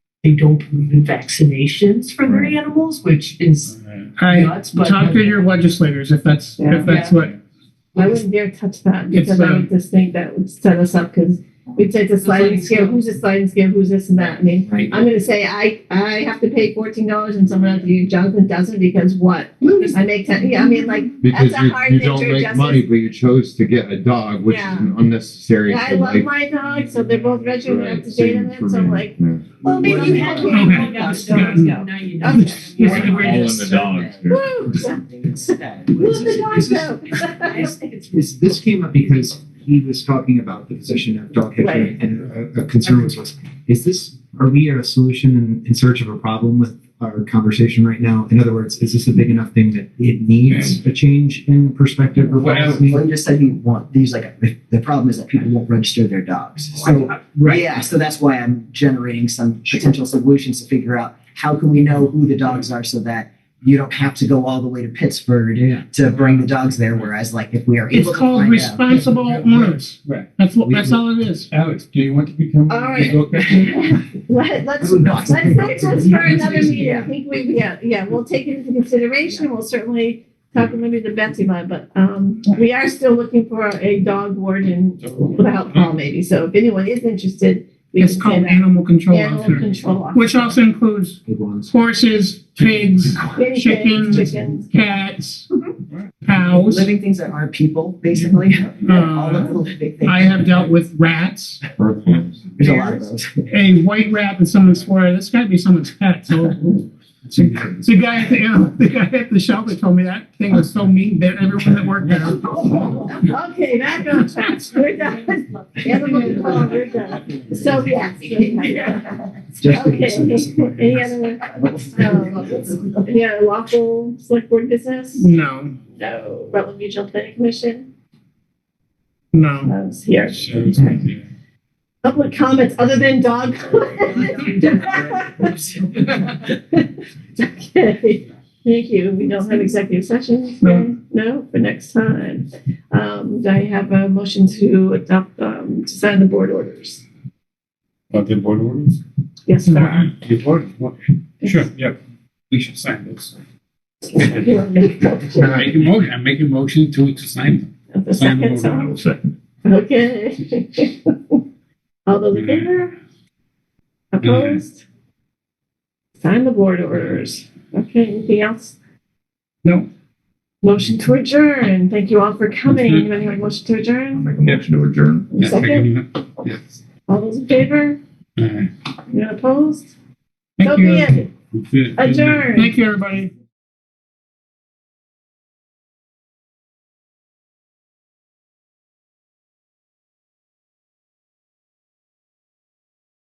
they don't believe in vaccinations for their Right. animals, which is I nuts, but. talk to your legislators if that's, Yeah. if that's Yeah. what, I wouldn't dare touch that It's, because I um, would just think that would set us up because we'd say it's a sliding sliding scale, scale. who's a sliding scale, who's this and that. I mean, Right. I'm gonna say I, I have to pay fourteen dollars and someone else, you, Jonathan doesn't because what? I make ten, yeah, I mean, like, Because That's a you, hard you thing don't to make adjust money, it. but you chose to get a dog, which is Yeah. an unnecessary. I thing, love like- my dog, so they're both registered Right, up to date same on for it, so I'm me, like, yeah. well, maybe you had to. Okay. have Now dogs. you know. Yeah. Now you Okay. know. You're All gonna wear in this the dogs. survey. yeah. Woo! Something instead. Who's the dog Is this- I though? think it's This, this came up because he was talking about the position of dog catching Right. and a, a concern was, was, is this, are we a solution in, in search of a problem with our conversation right now? In other words, is this a big enough thing that it needs a change in perspective or policy? Glenn just said he want, he's like, the problem is that people won't register their dogs. So, Right, yeah, so that's why I'm generating some potential solutions to figure out how can we know who the dogs are so that you don't have to go all the way to Pittsburgh yeah. to bring the dogs there, whereas like if we are it's able to called find out. responsible owners. Right. That's what, We- that's all it is. Alex, do you want to become? All right. Let, let's, Who let's, knows? let's, let's for another meeting, I Yeah. think we, yeah, yeah, we'll take it into consideration, we'll certainly talk maybe to Betsy about it, but, um, we are still looking for a dog warden without call maybe, so if anyone is interested, we can It's say called that. animal control Animal officer, control officer. which also includes Good ones. horses, pigs, Guinea pigs, chickens, chickens. cats, cows. Living things that aren't people, basically, all of Uh, the living things. I have dealt with rats. Earthworms. There's a lot of those. a white rat that someone swore at. That's got to be someone's pet. So the guy at the animal, the guy at the shelter told me that thing was so mean that everyone that worked there. Okay, back on track, we're done, animal control, we're done, so, yes. Just Okay, because it's- any other, um, any other lawful select board business? No, No, Rutland Regional Planning Commission, no. I was here. Public comments other than dog. Oh. comments. Okay, thank you. We don't have executive sessions, No. no, for next time. Um, do I have a motion to adopt, um, to sign the board orders? About the board orders? Yes, sir. The board, what? Sure, yeah, we should sign those. You want me I Make to- a motion, I make a motion to, to sign. A sign the second, board so, orders. okay. All those Mm-hmm. in favor? Opposed? Sign the board orders. Okay, anything else? No. Motion to adjourn. Thank you all for coming. Mm-hmm. Anyone have a motion to adjourn? Make a motion to adjourn. Yeah, Second, make a- all those in favor? yeah. Anyone opposed? So Thank be you. it. Uh, Adjourn. Thank you, everybody.